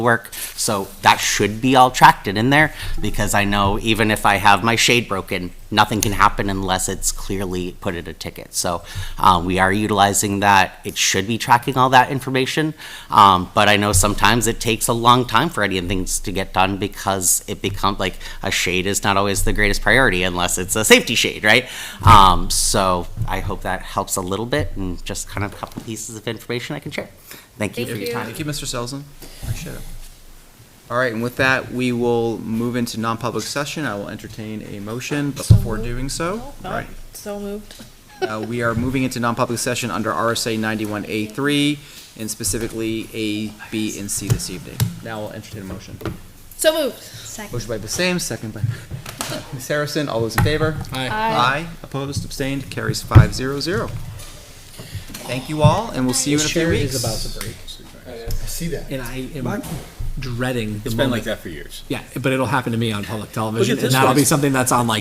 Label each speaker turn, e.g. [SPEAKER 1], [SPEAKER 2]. [SPEAKER 1] work. So that should be all tracked in there because I know even if I have my shade broken, nothing can happen unless it's clearly put in a ticket. So uh, we are utilizing that. It should be tracking all that information. Um, But I know sometimes it takes a long time for any of things to get done because it becomes like a shade is not always the greatest priority unless it's a safety shade, right? Um, So I hope that helps a little bit and just kind of a couple pieces of information I can share. Thank you for
[SPEAKER 2] Thank
[SPEAKER 1] your
[SPEAKER 2] you.
[SPEAKER 1] time.
[SPEAKER 3] Thank you, Mr. Selzen. Appreciate it. All right, and with that, we will move into non-public session. I will entertain a motion, but before doing so, right,
[SPEAKER 2] So moved.
[SPEAKER 3] uh, we are moving into non-public session under RSA ninety-one A three, and specifically A, B, and C this evening. Now I'll entertain a motion.
[SPEAKER 2] So moved.
[SPEAKER 3] Motion by Bassam, second by Ms. Harrison. All those in favor? Aye. Opposed, abstained, carries five zero zero. Thank you all, and we'll see you in a few
[SPEAKER 4] Sherry
[SPEAKER 3] weeks.
[SPEAKER 4] is about to break.
[SPEAKER 5] I see that.
[SPEAKER 4] And I am dreading the
[SPEAKER 5] It's been
[SPEAKER 4] moment.
[SPEAKER 5] like that for years.
[SPEAKER 4] Yeah, but it'll happen to me on public television,
[SPEAKER 5] this
[SPEAKER 4] and that'll
[SPEAKER 5] one.
[SPEAKER 4] be something that's on like